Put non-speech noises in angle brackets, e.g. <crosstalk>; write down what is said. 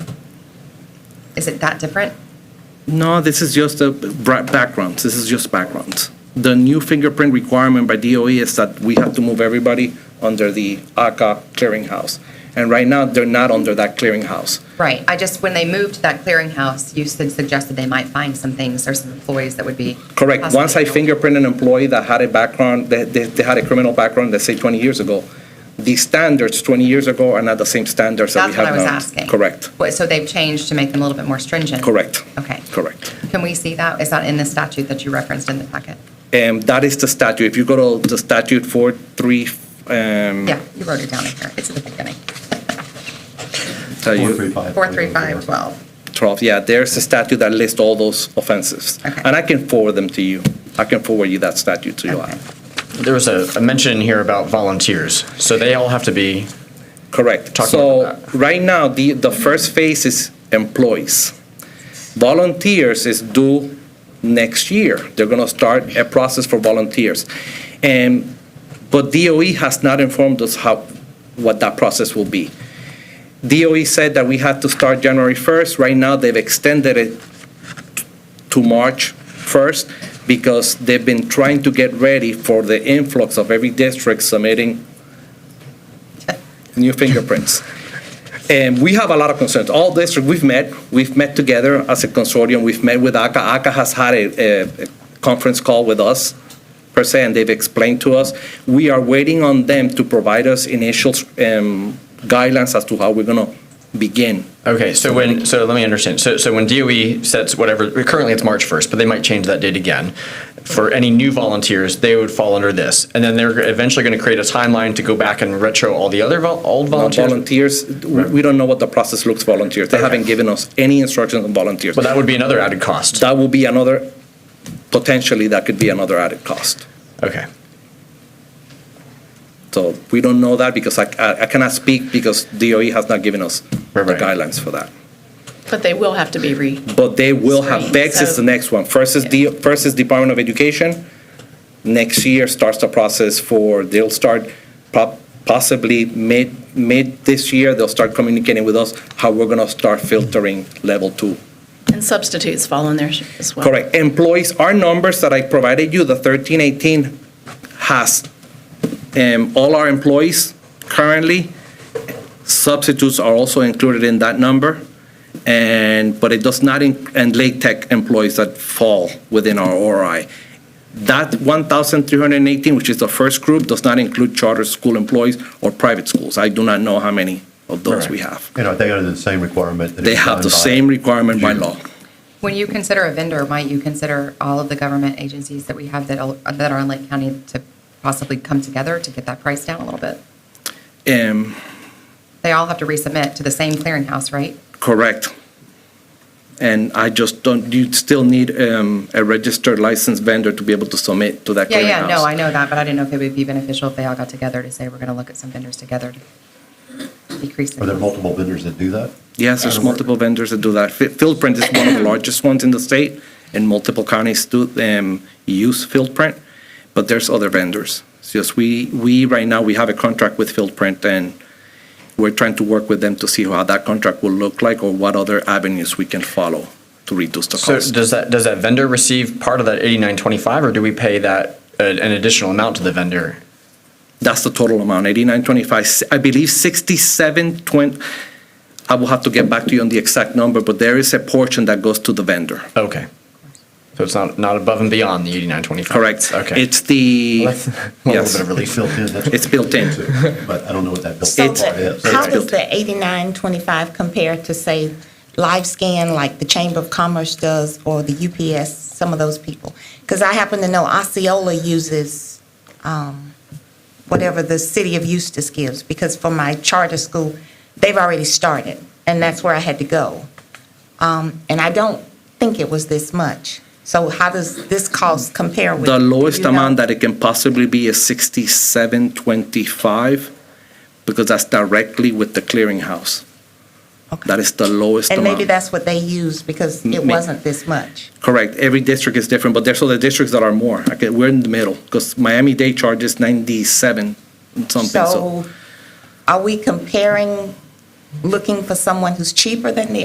Is it that different? No, this is just a bra- backgrounds. This is just backgrounds. The new fingerprint requirement by DOE is that we have to move everybody under the ACA clearinghouse. And right now, they're not under that clearinghouse. Right. I just, when they moved to that clearinghouse, you said- suggested they might find some things or some employees that would be. Correct. Once I possibly- fingerprint an employee that had a background, that they, they had a criminal background, let's say 20 years ago, the standards 20 years ago are not the same standards that we That's have what now. I was asking. Correct. What- So they've changed to make them a little bit more stringent? Correct. Okay. Correct. Can we see that? Is that in the statute that you referenced in the packet? And that is the statute. If you go to the statute 43, um, Yeah, you wrote it down in here. It's at the beginning. tell you. 435. 43512. 12, yeah, there's a statute that lists all those offenses. Okay. And I can forward them to you. I can forward you that statute to you. Okay. There was a, a mention in here about volunteers, so they all have to be, Correct. Talk So about right now, the, the first phase is employees. Volunteers is due next year. They're going to start a process for volunteers. And, but DOE has not informed us how, what that process will be. DOE said that we had to start January 1st. Right now, they've extended it to March 1st because they've been trying to get ready for the influx of every district submitting new fingerprints. And we have a lot of concerns. All districts, we've met, we've met together as a consortium, we've met with ACA. ACA has had a, a- a conference call with us, per se, and they've explained to us. We are waiting on them to provide us initial um, guidelines as to how we're going to begin. okay, so when, so let me understand. So, so when DOE sets whatever, currently it's March 1st, but they might change that date again. For any new volunteers, they would fall under this. And then they're eventually going to create a timeline to go back and retro all the other vol, old volunteers. Volunteers, we we don't know what the process looks volunteers. They Okay. haven't given us any instructions on volunteers. Well, that would be another added cost. That will be another, potentially, that could be another added cost. Okay. So we don't know that because I- I, I cannot speak because DOE has not given us the Right, right. guidelines for that. But they will have to be re, But they will have, Right, VEX is so- the next one. First is, D- first is Department of Education. Next year starts the process for, they'll start po- possibly mid, mid this year, they'll start communicating with us how we're going to start filtering level two. and substitutes fall in there as well. Correct. Employees, our numbers that I provided you, the 1318, has um, all our employees currently. Substitutes are also included in that number, and, but it does not, in- and late tech employees that fall within our ORI. That 1,318, which is the first group, does not include charter school employees or private schools. I do not know how many of those we have. You know, they are the same requirement. that They is have the done by- same requirement by June. law. When you consider a vendor, might you consider all of the government agencies that we have that al- that are in Lake County to possibly come together to get that price down a little bit? Um, They all have to resubmit to the same clearinghouse, right? Correct. And I just don't, you still need um, a registered licensed vendor to be able to submit to that Yeah, clearinghouse. yeah, no, I know that, but I didn't know if it would be beneficial if they all got together to say, we're going to look at some vendors together to decrease Are there the. multiple vendors that do that? Yes, there's multiple vendors that do that. Fi- Fieldprint is one of <coughs> the largest ones in the state, and multiple counties do um, use Fieldprint, but there's other vendors. It's just we, we, right now, we have a contract with Fieldprint, and we're trying to work with them to see how that contract will look like or what other avenues we can follow to reduce the So cost. does that, does that vendor receive part of that 8925, or do we pay that, uh, an additional amount to the vendor? That's the total amount, eighty-nine twenty-five. I believe sixty-seven twenty, I will have to get back to you on the exact number, but there is a portion that goes to the vendor. Okay. So it's not, not above and beyond the 8925? Correct. Okay. It's the, Well, that's <laughs> a little yes, bit of relief. It's built in. that's what It's built in. <laughs> But I don't know what that built So in It's- part the- is. how built does the 8925 compare to, say, LiveScan, like the Chamber of Commerce does, or the UPS, some of those people? Because I happen to know Osceola uses um, whatever the city of Eustis gives, because for my charter school, they've already started, and that's where I had to go. Um, And I don't think it was this much. So how does this cost compare with? the lowest you know? amount that it can possibly be is sixty-seven twenty-five, because that's directly with the clearinghouse. Okay. That is the lowest And amount. maybe that's what they used, because it May- wasn't this much. Correct. Every district is different, but there's other districts that are more. Okay, We're in the middle, because Miami-Dade charges ninety-seven and something, so. So are we comparing, looking for someone who's cheaper than the